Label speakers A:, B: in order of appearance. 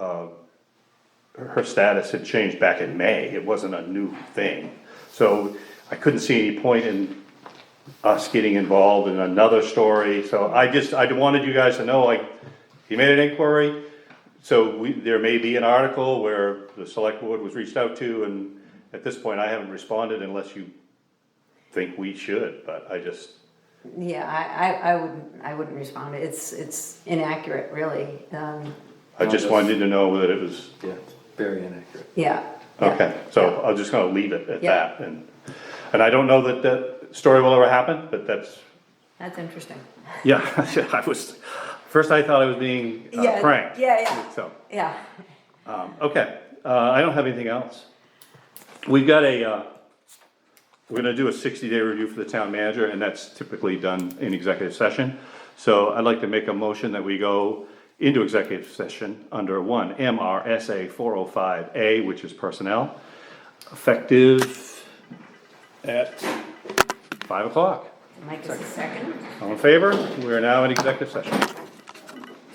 A: her status had changed back in May. It wasn't a new thing. So I couldn't see any point in us getting involved in another story. So I just, I wanted you guys to know, like, he made an inquiry. So we, there may be an article where the select board was reached out to and at this point, I haven't responded unless you think we should, but I just,
B: Yeah, I, I, I wouldn't, I wouldn't respond. It's, it's inaccurate, really. Um,
A: I just wanted to know that it was,
C: Yeah, very inaccurate.
B: yeah. yeah,
A: okay, so I'm just gonna leave it at
B: Yeah.
A: that and, and I don't know that that story will ever happen, but that's,
B: That's interesting.
A: yeah, I was, first I thought I was being uh,
B: Yeah,
A: pranked.
B: yeah, yeah.
A: So,
B: Yeah.
A: um, okay, uh, I don't have anything else. We've got a, uh, we're gonna do a sixty day review for the town manager and that's typically done in executive session. So I'd like to make a motion that we go into executive session under one MRSA four oh five A, which is personnel, effective at five o'clock.
B: Mike is a second.
A: All in favor? We are now in executive session.